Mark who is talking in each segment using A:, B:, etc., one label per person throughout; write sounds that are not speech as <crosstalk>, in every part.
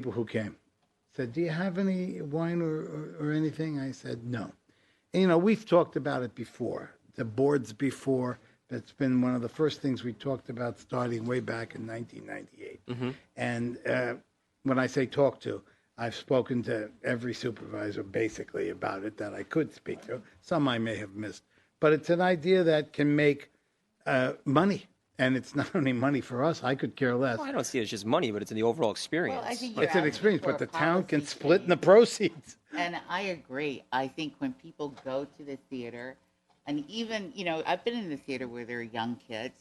A: people who came said, "Do you have any wine or, or, or anything?" I said, "No." And, you know, we've talked about it before, the boards before. That's been one of the first things we talked about, starting way back in 1998. And uh, when I say talk to, I've spoken to every supervisor basically about it that I could speak to. Some I may have missed, but it's an idea that can make uh, money. And it's not <laughs> only money for us. I could care less.
B: Well, I don't see it as just money, but it's in the overall experience.
C: think
A: It's
C: you're
A: an
C: asking
A: experience,
C: for
A: but
C: a
A: the town can
C: policy
A: split in the
C: change. <laughs>
A: proceeds.
C: And I agree. I think when people go to the theater, and even you know, I've been in the theater where there are young kids,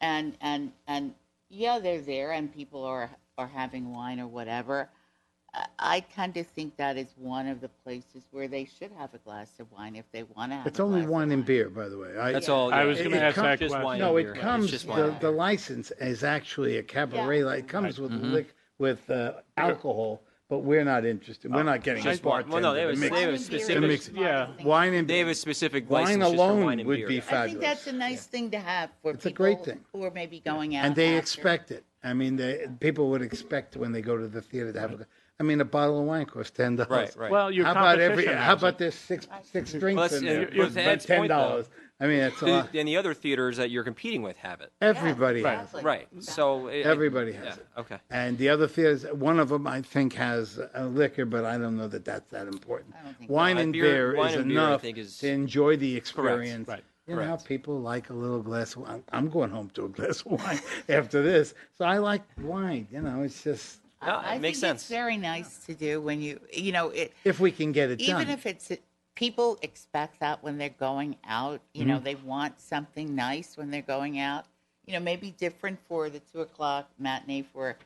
C: and and and yeah, they're there, and people are are having wine or whatever. I- I tend to think that is one of the places where they should have a glass of wine if they want to have.
A: It's
C: a
A: only
C: glass of
A: wine and
C: wine.
A: beer, by the way. I-
B: That's all.
D: I
B: yeah.
D: was
B: It-
D: gonna
B: it
D: ask
B: comes-
D: that
B: just
D: question.
B: wine
A: No,
B: and
A: it
B: beer.
A: comes,
B: It's just wine
A: the,
B: and
A: the
B: beer.
A: license is actually a cabaret,
C: Yeah.
A: li- it comes with
B: Mm-hmm.
A: lic, with uh, alcohol, but we're not interested. We're not getting a
B: Just wine. Well, no,
A: bartender
B: they
A: to
B: was-
A: mix
B: they
A: it.
B: was
C: Wine and beer is
B: specific-
C: the
A: Mix-
C: smartest thing.
D: yeah.
A: Wine and beer. Wine
B: They have a specific license just for wine
A: alone
B: and
A: would
B: beer.
A: be
C: I think that's
A: fabulous.
C: a nice thing to have for
A: It's a
C: people
A: great thing.
C: who are maybe going out.
A: And they
C: after.
A: expect it. I mean, they, people would expect when they go to the theater to have, a I mean, a bottle of wine costs ten dollars.
B: Right, right.
D: Well, your
A: How about every,
D: competition
A: how
D: has
A: about
D: it.
A: there's six, six
B: Well,
A: drinks
B: that's-
A: in
B: and
A: there,
B: you're-
A: for
B: to Ed's
A: ten
B: point, though,
A: dollars? I mean, it's a lot.
B: And the other theaters that you're competing with have it.
A: Everybody
C: Yes,
A: has it.
C: exactly.
B: Right. So it-
A: Everybody has
B: yeah,
A: it.
B: Okay.
A: And the other theaters, one of them I think has a liquor, but I don't know that that's that important.
C: I don't think
A: Wine
B: so.
A: and
B: Beer-
A: beer
B: wine
A: is
B: and beer, I
A: enough
B: think, is-
A: to enjoy the experience.
D: Right.
A: You know how
B: Correct.
A: people like a little glass of wine? I'm going home to a glass of wine <laughs> after this. So I like wine, you know, it's just,
B: No,
C: I
B: it makes
C: think
B: sense.
C: It's very nice to do when you you know it.
A: if we can get it
C: even
A: done.
C: if it's people expect that when they're going out you know
B: Mm-hmm.
C: they want something nice when they're going out you know maybe different for the two o'clock matinee for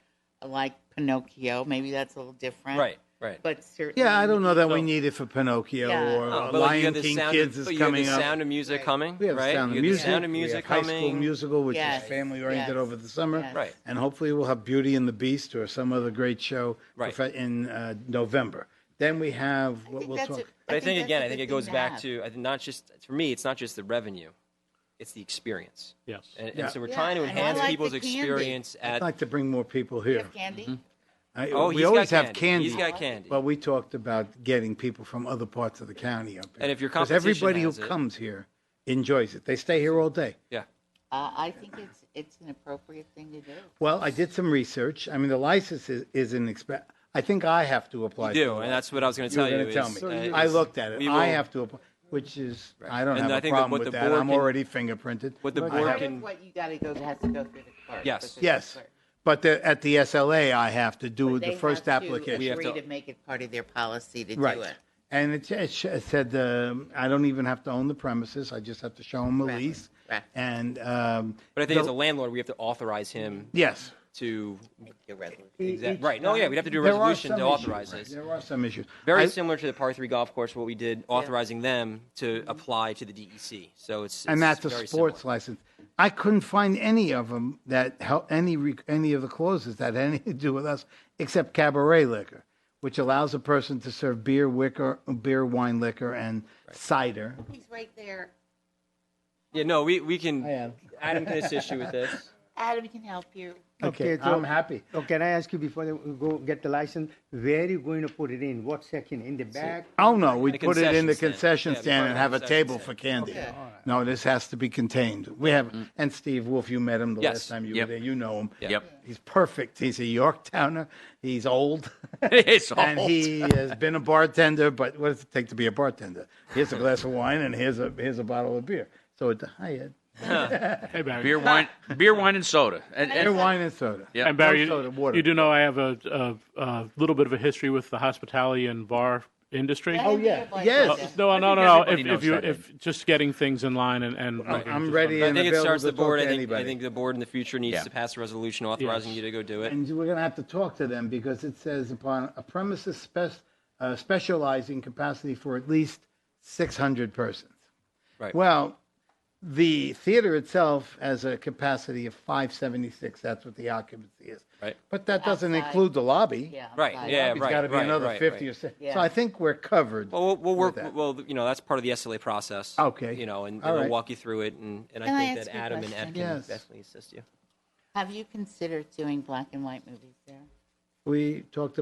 C: like pinocchio maybe that's a little different
B: Right, right.
C: but certainly
A: Yeah, I don't know that we
B: So-
A: need it for Pinocchio
C: Yeah.
A: or
B: No,
A: uh,
B: but like, you
A: Lion
B: have the
A: King
B: sound
A: Kids
B: of,
A: is
B: but you have
A: coming
B: the
A: up.
B: Sound of music
C: Right.
B: coming.
A: We have Sound
B: right. you
A: of
B: have
A: Music.
B: The sound of music
A: we have
B: coming.
A: High School Musical, which
C: Yes,
A: is family oriented
C: yes,
A: over the summer.
C: yes.
B: Right.
A: And hopefully we'll have Beauty and the Beast or some other great show
B: Right.
A: profe- in uh, November. Then we have what
C: think
A: we'll
C: that's
A: talk.
C: a-
B: But I think,
C: that's
B: again,
C: a
B: I think
C: good
B: it goes
C: thing
B: back
C: have.
B: to I think not just for me. It's not just the revenue; it's the experience.
D: Yes.
B: And, and
A: Yeah.
B: so we're
C: Yeah,
B: trying to
C: and I
B: enhance
C: like
B: people's
C: the candy.
B: experience
A: I'd
B: at.
A: like to bring more people
C: You
A: here.
C: have candy
B: Mm-hmm.
A: I-
B: oh,
A: we
B: he's
A: always
B: got
A: have
B: candy.
A: candy.
B: He's got candy.
A: But we talked about getting people from other parts of the county up here.
B: And if your
A: 'Cause
B: competition
A: everybody
B: has
A: who
B: it-
A: comes here enjoys it. They stay here all day.
B: yeah.
C: uh, i think it's it's an appropriate thing to do
A: Well, I did some research. I mean, the license is, is an expense. I think I have to apply.
B: You
A: for
B: do,
A: the
B: and that's what I was going to
A: You
B: tell
A: were going
B: you.
A: to tell
B: is,
A: me.
B: uh,
A: I
B: is
A: looked at it.
B: we
A: I
B: will-
A: have to apply, which is, I don't
B: And
A: have
B: I
A: a
B: think that
A: problem
B: what
A: with
B: the
A: that.
B: board
A: I'm
B: can-
A: already fingerprinted.
B: what the
A: but I
B: board
A: have-
C: part
B: can-
C: of what you got to go has to go through the clerk
B: Yes.
C: because it's the
A: Yes,
C: clerk.
A: but the, at the SLA, I have to do
C: They
A: the first
C: have to
A: application.
B: We have
C: agree
B: to-
C: to make it part of their policy to do
A: Right.
C: it
A: And it, it sh- it said, um, I don't even have to own the premises. I just have to show them a
C: Correct.
A: lease.
C: Correct.
A: And, um,
B: But I think
A: the-
B: as a landlord, we have to authorize him
A: yes.
B: to.
C: your resolution
B: Exact- right. No, yeah, we'd have to do a
A: There are
B: resolution
A: some
B: to
A: issues.
B: authorize this.
A: There are some issues.
B: Very
A: I-
B: similar to the par three golf course, what we did authorizing them to apply to the DEC. So it's,
A: and
B: it's
A: that's a
B: very
A: sports
B: similar.
A: license. I couldn't find any of them that hel- any re- any of the clauses that had anything to do with us, except cabaret liquor, which allows a person to serve beer, wicker, beer, wine, liquor, and cider.
C: he's right there
B: Yeah, no, we, we can.
A: I am.
B: Adam can assist you
A: <laughs>
B: with this.
C: adam can help you
A: Okay,
E: so-
A: I'm happy.
E: So can I ask you before you go get the license, where are you going to put it in? What section? In the back?
A: Oh no, we
B: The
A: put it in the concession
B: concession stand. Yeah,
A: stand
B: the
A: and
B: part
A: have
B: of
A: a
B: the
A: table
B: concession
A: for candy.
C: Okay.
A: No, this has to be contained. We have and Steve Wolf, you met him the
B: Mm-hmm. Yes.
A: last time you
F: Yep.
A: were there. You know him.
B: Yep.
A: He's perfect. He's a Yorktowner. He's
B: <laughs>
A: old.
F: It's
A: <laughs> and
F: old.
A: he has been a bartender, but what does it take to be a bartender? Here's a glass of wine and here's a here's a bottle of beer. So it's hi Ed.
D: Hey, Barry.
F: beer, wine, beer, wine, and soda. And,
A: Beer,
F: and
A: wine, and soda.
D: And Barry,
A: No soda, water.
D: you do know I have a, a, a little bit of a history with the hospitality and bar industry.
C: Oh
A: yeah.
D: Uh,
A: Yes.
D: no, no,
F: think
D: no, no. If,
F: everybody knows
D: if you,
F: that.
D: if just getting things in line and, and making
A: I'm
D: just-
A: ready
B: I
A: and
B: think it
A: available
B: starts
A: to
B: the board.
A: talk
B: I
A: to
B: think, I
A: anybody.
B: think the board in the future needs
F: Yeah.
B: to pass a resolution authorizing
D: Yes.
B: you to go do it.
A: And we're going to have to talk to them because it says upon a premises spec, uh, specializing capacity for at least 600 persons.
B: Right.
A: Well, the theater itself has a capacity of 576. That's what the occupancy is.
B: Right.
A: But that doesn't
C: Outside.
A: include the lobby.
C: yeah
B: Right,
C: but-
B: yeah,
A: It's got to be
B: right,
A: another
B: right,
A: 50
B: right.
A: or 60. So
C: Yeah.
A: I think we're covered.
B: Well, we'll, we'll
A: with
B: work.
A: that.
B: Well, you know, that's part of the SLA process.
A: Okay.
B: You know, and,
A: All
B: and they'll
A: right.
B: walk you through it, and, and I
C: Can I
B: think
C: ask
B: that
C: you a
B: Adam and Ed
C: question?
B: can
A: Yes.
B: definitely assist you.
C: Have you considered doing black and white movies there?
A: We talked